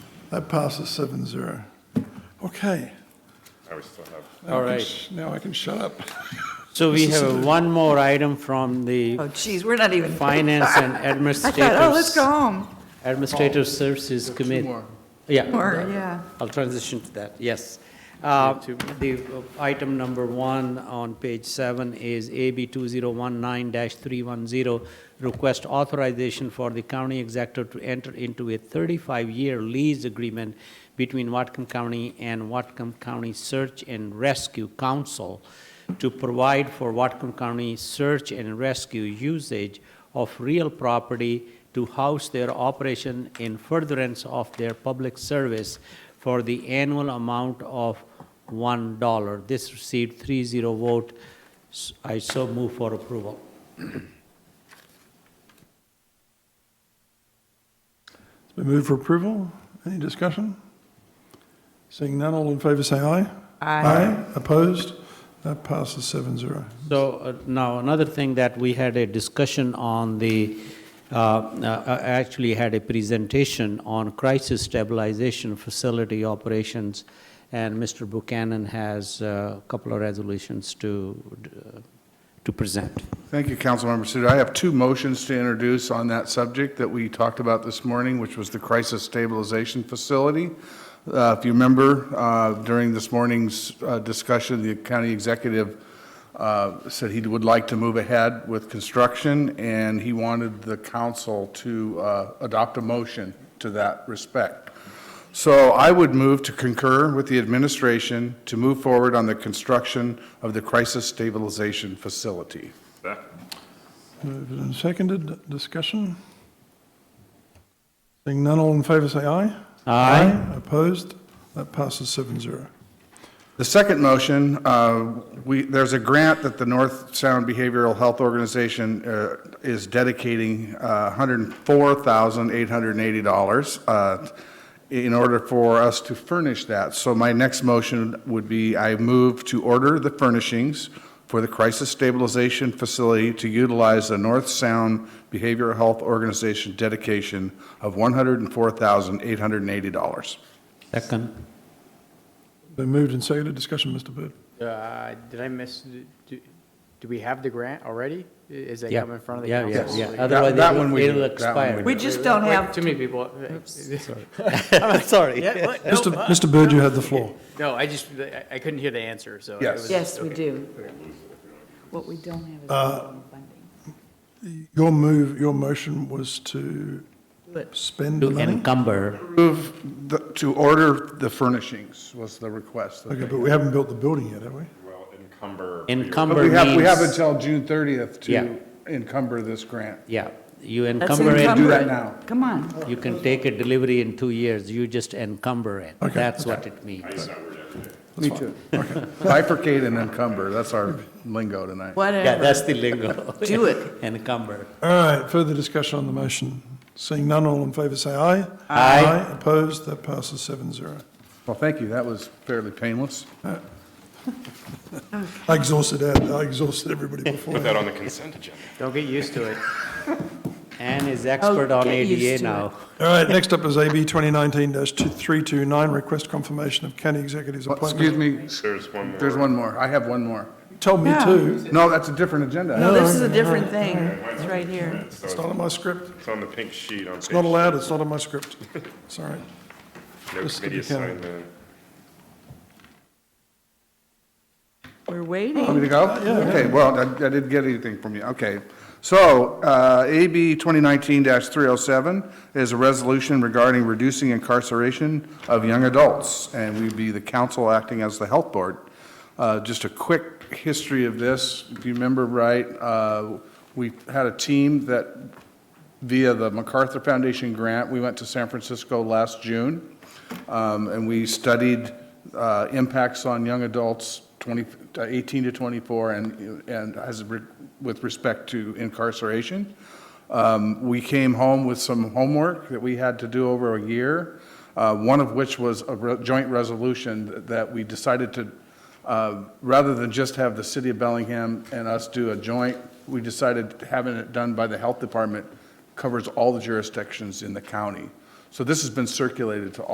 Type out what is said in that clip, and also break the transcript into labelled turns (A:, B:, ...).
A: That passes seven zero. Okay.
B: I was still have.
A: now I
C: All
A: can
C: right.
A: sh- Now I can shut up.
C: So we
A: This is
C: have
A: it.
C: one more item from the
D: Oh, geez, we're not even.
C: Finance and
D: I thought, oh, let's go
C: Administrative,
D: home.
C: Administrative Services Committee. Yeah.
D: Or, yeah.
C: I'll transition to that, yes. Uh, The uh, item number one on page seven is AB 2019-310, request authorization for the county executive to enter into a 35-year lease agreement between Watcom County and Watcom County Search and Rescue Council to provide for Watcom County search and rescue usage of real property to house their operation in furtherance of their public service for the annual amount of $1. This received 3-0 vote. S- I so move for approval.
A: It's been moved for approval. Any discussion? Seeing none, all in favor say aye.
D: Aye.
A: Opposed? That passes seven zero.
C: So uh, now, another thing that we had a discussion on the, uh, uh, I actually had a presentation on crisis stabilization facility operations, and Mr. Buchanan has uh, a couple of resolutions to, uh, to present.
B: Thank you, Councilmember Suter. I have two motions to introduce on that subject that we talked about this morning, which was the Crisis Stabilization Facility. Uh, If you remember, uh, during this morning's uh, discussion, the county executive uh, said he would like to move ahead with construction, and he wanted the council to uh, adopt a motion to that respect. So I would move to concur with the administration to move forward on the construction of the Crisis Stabilization Facility.
A: Moved and seconded. Discussion? Seeing none, all in favor say aye.
C: Aye.
A: Opposed? That passes seven zero.
B: The second motion, uh, we, there's a grant that the North Sound Behavioral Health Organization uh, is dedicating uh, $104,880 uh, in order for us to furnish that. So my next motion would be, I move to order the furnishings for the Crisis Stabilization Facility to utilize the North Sound Behavioral Health Organization dedication of $104,880.
C: Second.
A: Been moved and seconded. Discussion, Mr. Byrd.
E: Uh, Did I miss, do do we have the grant already? I- Is that
C: Yeah.
E: coming in front of the
C: Yeah, yeah,
E: council?
C: yeah.
E: Like-
C: Otherwise,
B: that one
C: it'll
B: we do.
C: it'll
B: That one we
C: expire.
B: do.
D: We just don't
E: Wait,
D: have,
E: Too many people.
C: I'm sorry.
E: Yeah, what? No,
A: Mr. Mr. Byrd, you had the floor.
E: No, I just, I- I couldn't hear the answer, so. it
B: Yes.
E: was-
D: yes, we
E: okay.
D: do. What we don't have is
B: Uh,
D: funding.
A: Your move, your motion was to
D: But-
A: spend the
C: To
A: money?
C: encumber.
B: Approve the- to order the furnishings was the request. that
A: Okay,
B: they-
A: but we haven't built the building yet, have we?
B: But
C: Encumber
B: we have, we have
C: means-
B: until June 30th
C: Yeah.
B: to encumber this grant.
C: Yeah, you
D: Let's
C: encumber it.
D: encumber
B: that
D: it.
B: now.
D: Come on.
C: You can take a delivery in two years, you just encumber it.
A: Okay,
C: That's what it means.
B: Me too. Bifurcate and encumber, that's our lingo tonight.
C: Yeah,
D: Whatever.
C: that's the lingo.
D: Do it.
C: Encumber.
A: All right, further discussion on the motion. Seeing none, all in favor say aye.
C: Aye.
A: Opposed, that passes seven zero.
B: Well, thank you, that was fairly painless.
A: I exhausted, Ed. I exhausted everybody before.
F: Put that on the consent agenda.
E: Don't get used to it.
C: Anne is expert on
D: get used
C: ADA
D: to
C: now.
A: All right, next up is AB 2019-329, request confirmation of county executive's
B: Well, Excuse
A: appointment.
B: me,
F: There's one more.
B: there's one more, I have one more.
A: Told me
D: Yeah.
A: to.
B: No, that's a different agenda.
D: No, this is a different thing. It's right here.
F: So
A: It's
F: it's
A: not on my script.
F: it's on the pink sheet on page.
A: It's not allowed. It's not on my script. Sorry.
F: No
A: Just to be
F: committee
A: counted.
F: assignment.
D: We're
B: Want me
D: waiting.
B: to go? Okay, well, I I didn't get anything from you, okay. So, uh, AB 2019-307 is a resolution regarding reducing incarceration of young adults, and we'd be the council acting as the health board. Uh, Just a quick history of this, if you remember right, uh, we had a team that, via the MacArthur Foundation grant, we went to San Francisco last June, um, and we studied uh, impacts on young adults 20, uh, 18 to 24 and, and as, re- with respect to incarceration. Um, We came home with some homework that we had to do over a year, uh, one of which was a re- joint resolution that we decided to, uh, rather than just have the city of Bellingham and us do a joint, we decided having it done by the health department covers all the jurisdictions in the county. So this has been circulated to all.